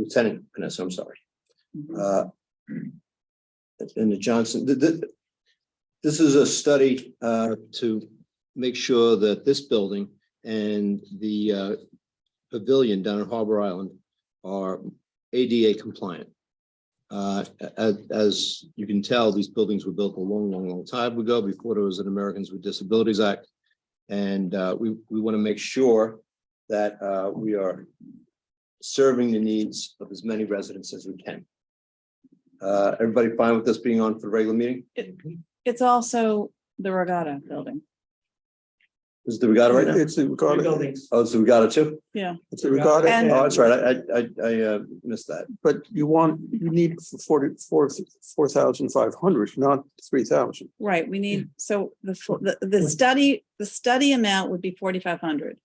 Lieutenant Panessa, I'm sorry. Uh, And the Johnson, th- th- this is a study uh, to make sure that this building and the uh, pavilion down at Harbor Island are ADA compliant. Uh, a- a- As you can tell, these buildings were built a long, long, long time ago, before there was an Americans with Disabilities Act. And uh, we, we want to make sure that uh, we are serving the needs of as many residents as we can. Uh, Everybody fine with this being on for the regular meeting? It- It's also the regatta building. Is the regatta right now? It's a regatta, Oh, it's the regatta too? it's a regatta, And- Oh, that's right. I, I, I- I uh, missed that. but you want, you need forty, four, four thousand five hundred, not three thousand. Right, we need, so the, fo- the, the study, the study amount would be forty-five hundred,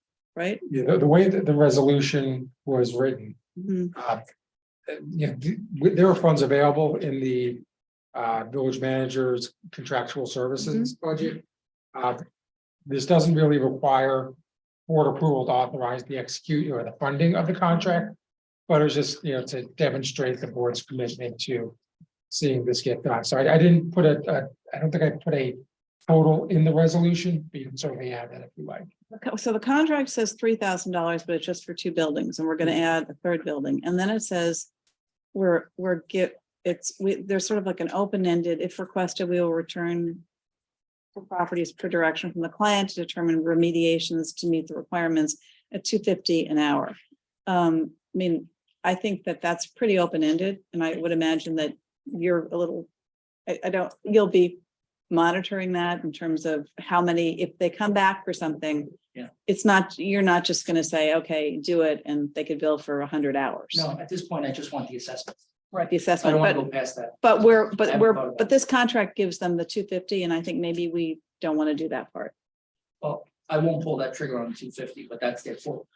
right? you know, the way that the resolution was written, Mhm. uh, you know, th- there are funds available in the uh, village manager's contractual services budget. Uh, This doesn't really require board approval to authorize the execute or the funding of the contract. But it's just, you know, to demonstrate the board's commitment to seeing this get done. So I, I didn't put a, a- I don't think I put a total in the resolution, but you can certainly add that if you like. Okay, So the contract says three thousand dollars, but it's just for two buildings, and we're gonna add a third building, and then it says. We're, we're get, it's, we, there's sort of like an open-ended, if requested, we will return. for Properties per direction from the client to determine remediations to meet the requirements at two fifty an hour. Um, I mean, I think that that's pretty open-ended, and I would imagine that you're a little. I, I don't, you'll be monitoring that in terms of how many, if they come back for something it's not, you're not just gonna say, okay, do it, and they could bill for a hundred hours. No, at this point, I just want the assessment. Right, the I assessment, don't want to but, go past that. but we're, I but haven't we're, thought about it. but this contract gives them the two fifty, and I think maybe we don't wanna do that part. Well, I won't pull that trigger on two fifty, but that's their fault.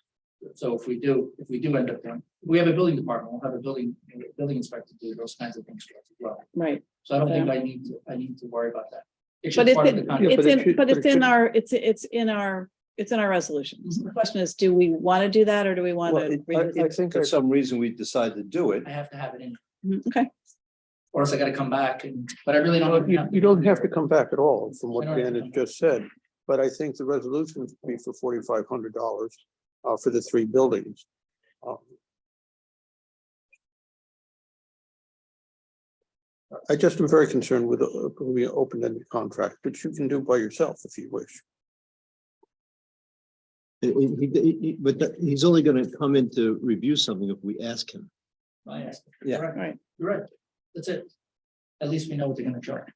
So if we do, if we do end up doing, we have a building department, we'll have a building, a building inspector do those kinds of things for us as well. Right, So I don't think I need to, I need to worry about that. It's But just it's part of in- the contract. Yeah, it's but it in, should- but but it's it in should- our, it's, it's in our, it's in our resolutions. The question is, do we wanna do that, or do we Mm-hmm. Well, wanna? it- revisit I I it? think, For I- some reason, we decided to do it. I have to have it in, Mhm, Okay, or else I gotta come back and, but I really don't. you, you don't have to come back at all, from what I don't have Dan to has come just said. But I think the resolution would be for forty-five hundred dollars, uh, for the three buildings. Um, I just am very concerned with, uh, with the open-ended contract, which you can do by yourself if you wish. He- he- he- he- But that- he's only going to come in to review something if we ask him. I ask. Yeah. Correct. Right. You're right. That's it. At least we know what they're gonna charge.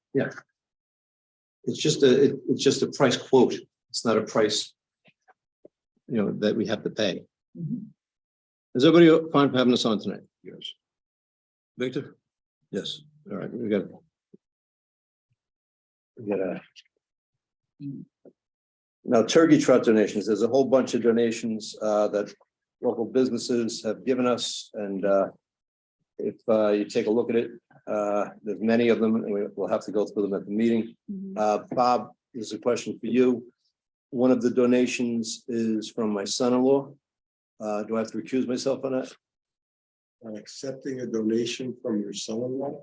It's just a, it- it's just a price quote. It's not a price, you know, that we have to pay. Mm-hmm. Is everybody fine for having us on tonight? Yes. Victor? Yes. All right, we got. We got a. Now turkey trot donations, there's a whole bunch of donations uh that local businesses have given us and uh. If uh you take a look at it, uh there's many of them and we will have to go through them at the meeting. Mhm. Uh Bob, this is a question for you. One of the donations is from my son-in-law. Uh, do I have to recuse myself on that? on accepting a donation from your son-in-law?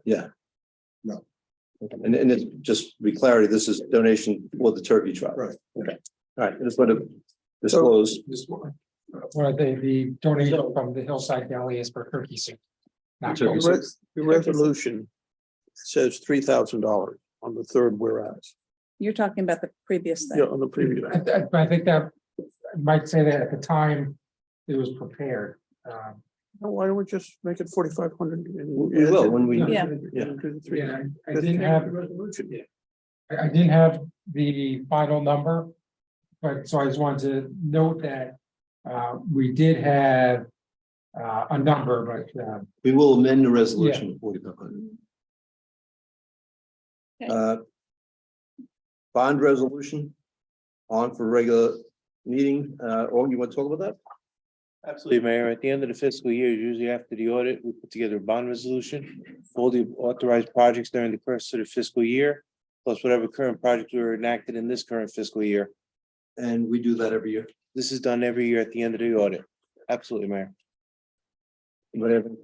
And, and it's just to be clarity, this is donation for the turkey trot. Right. Okay. All right, I just want to disclose. This one, one of the, the donation from the Hillside Deli is for turkey soup. Not Turkey gold. soup. Re- The resolution says three thousand dollars on the third whereas, you're talking about the previous yeah, thing. on the previous. I, I- I think that, I might say that at the time it was prepared. um, Well, Why don't we just make it forty-five hundred? We will when we. Yeah. Yeah, I I didn't have, resolution. I, I didn't have the final number. But so I just wanted to note that, uh, we did have, uh, a number, but, uh, We will amend the resolution to forty-five Okay. hundred. Uh, Bond resolution on for regular meeting. Uh, or you want to talk about that? Absolutely, Mayor. At the end of the fiscal year, usually after the audit, we put together a bond resolution for all the authorized projects during the course of the fiscal year, plus whatever current projects were enacted in this current fiscal year. And we do that every year. This is done every year at the end of the audit. Absolutely, Mayor. Whatever.